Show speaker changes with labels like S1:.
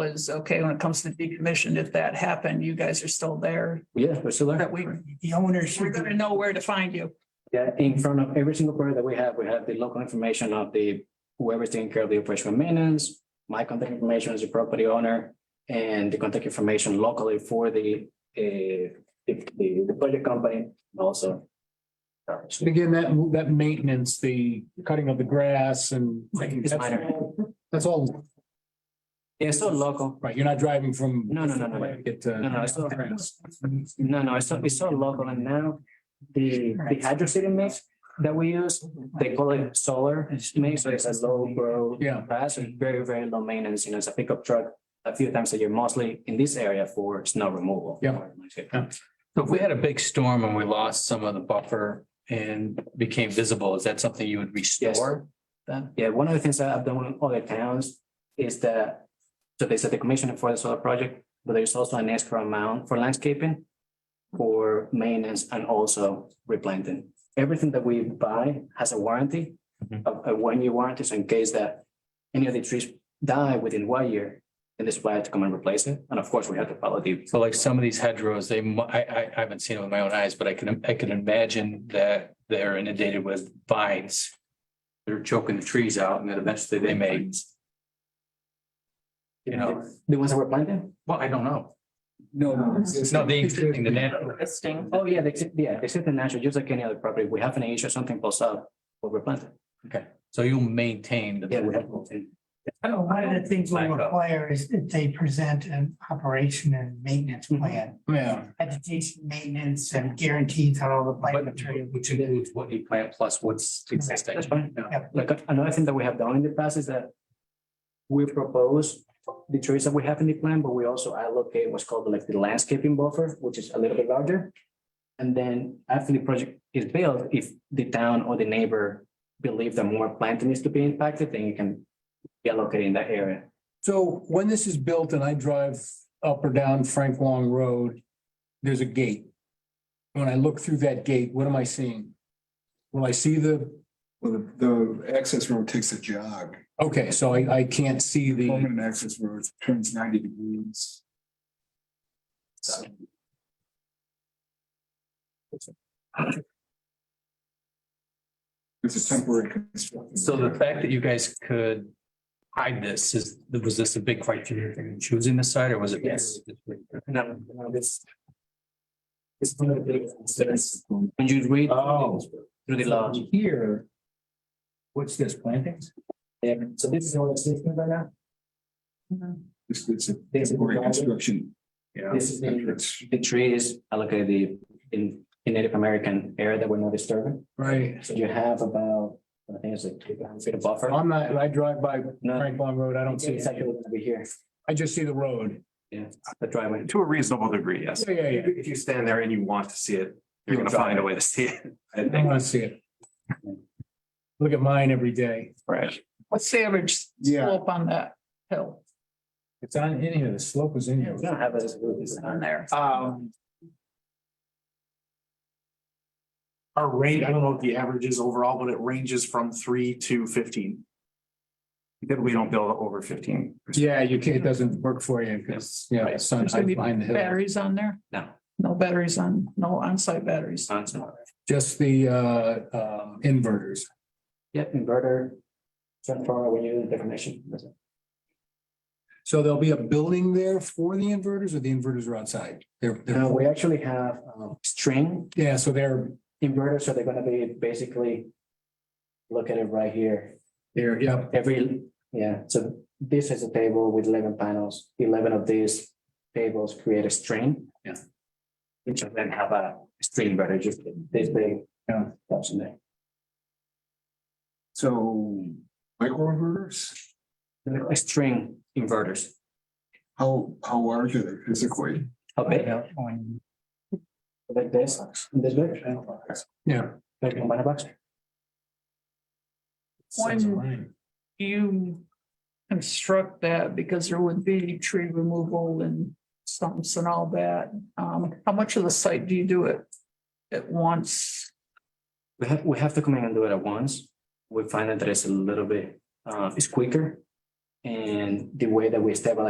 S1: was, okay, when it comes to decommission, if that happened, you guys are still there,
S2: Yeah, we're still
S1: that
S2: there.
S1: we,
S3: The owner
S1: we're
S3: should,
S1: gonna know where to find you.
S2: Yeah, in front of every single query that we have, we have the local information of the, whoever's taking care of the operational maintenance. My contact information is the property owner and the contact information locally for the, uh, the, the the project company also.
S4: And again, that, that maintenance, the cutting of the grass and.
S2: It's minor.
S4: That's all,
S2: It's still local.
S4: right, you're not driving from.
S2: No, no, no, no, no.
S4: Get to.
S2: No, no, it's not grass. No, no, it's so, it's so local and now the, the hydro city mix that we use, they call it solar mix, so it's a low grow.
S4: Yeah.
S2: Grass and very, very low maintenance, you know, it's a pickup truck a few times a year, mostly in this area for snow removal.
S4: Yeah.
S5: So if we had a big storm and we lost some of the buffer and became visible, is that something you would restore? Then,
S2: Yeah, one of the things that I've done in other towns is that, so there's a decommissioning for the solar project, but there's also an escrow amount for landscaping, for maintenance and also replanting. Everything that we buy has a warranty,
S5: Mhm.
S2: a, a one-year warranty, so in case that any of the trees die within one year, then the supplier had to come and replace it. And of course, we have to follow the,
S5: so like some of these hedgerows, they, mu- I, I, I haven't seen it with my own eyes, but I can, I can imagine that they're inundated with vines. They're choking the trees out and then eventually they may,
S2: you
S5: you
S2: know,
S5: know.
S2: the ones that were planted.
S5: well, I don't know.
S4: No.
S5: No, the existing, the natural.
S2: Oh, yeah, they, yeah, they sit in natural, just like any other property. We have an issue, something pops up, we'll replant it.
S5: So you'll maintain
S2: Yeah, we
S5: the.
S2: have. to.
S3: one of the things we require is that they present an operation and maintenance plan.
S4: Yeah,
S3: Vegetation maintenance and guarantees on all the plant material.
S5: Which includes what you plant plus what's existing.
S2: That's fine.
S5: Yeah.
S3: Yep.
S2: Like another thing that we have done in the past is that we propose the trees that we have in the plan, but we also allocate what's called like the landscaping buffer, which is a little bit larger. And then after the project is built, if the town or the neighbor believe that more planting needs to be impacted, then you can be allocated in that area.
S4: so when this is built and I drive up or down Frank Long Road, there's a gate. When I look through that gate, what am I seeing? Will I see the,
S6: Well, the, the access road takes a jog,
S4: okay, so I, I can't see the,
S6: permanent access road turns ninety degrees. It's a temporary construction.
S5: So the fact that you guys could hide this is, was this a big criteria in choosing the site or was it?
S2: Yes. Now, now this. It's one of the big concerns when you read. Through the law.
S4: Here. What's this, plantings?
S2: Yeah, so this is all existing right now.
S6: It's, it's a
S2: There's a
S6: temporary
S2: garden.
S6: construction. Yeah.
S2: This is the-
S6: entrance.
S2: The trees are like uh, the in in Native American area that we're not disturbing.
S4: Right,
S2: So you have about, I think it's like two hundred feet of buffer.
S4: I'm not, I drive by
S2: No,
S4: Frank Long Road, I don't see,
S2: it's actually
S4: it.
S2: over here,
S4: I just see the road.
S2: the driveway.
S7: To a reasonable degree, yes.
S4: Yeah, yeah, yeah.
S7: If you stand there and you want to see it, you're gonna find a way to see it. I
S4: I
S7: think,
S4: want to see it. Look at mine every day.
S7: right?
S1: What's the average
S4: Yeah.
S1: slope on that hill
S4: It's on in here. The slope is in here.
S2: We don't have this. this-
S1: on there?
S4: Uh,
S8: Um. Our range, I don't know what the average is overall, but it ranges from three to fifteen.
S7: Typically, don't build over fifteen.
S4: Yeah, you can't, it doesn't work for you because, yeah, the sun
S1: There's gonna
S4: hides
S1: be
S4: behind the hill.
S1: Batteries on there?
S2: No.
S1: No batteries on, no on-site batteries.
S4: Just the uh um inverters.
S2: Yep, inverter. Transformer, we use the connection. That's it.
S4: So there'll be a building there for the inverters or the inverters are outside? They're
S2: Now,
S4: they're,
S2: Uh, we actually have um string
S4: yeah, so they're,
S2: inverters, so they're gonna be basically. Look at it right here.
S4: they're, yeah,
S2: Every, yeah, so this is a table with eleven panels, eleven of these tables create a string.
S4: Yeah.
S2: Each of them have a string, but it's just this big.
S4: Yeah.
S2: That's in there.
S6: So micro inverters,
S2: They're like String inverters.
S6: how, how large are they physically?
S2: How big? Like this, this big.
S4: yeah.
S2: Like a banana box.
S4: Sounds right.
S1: you construct that because there would be tree removal and stumps and all that. Um, how much of the site do you do it at once?
S2: We have, we have to come in and do it at once. We find that it's a little bit, uh, it's quicker. And the way that we stabilize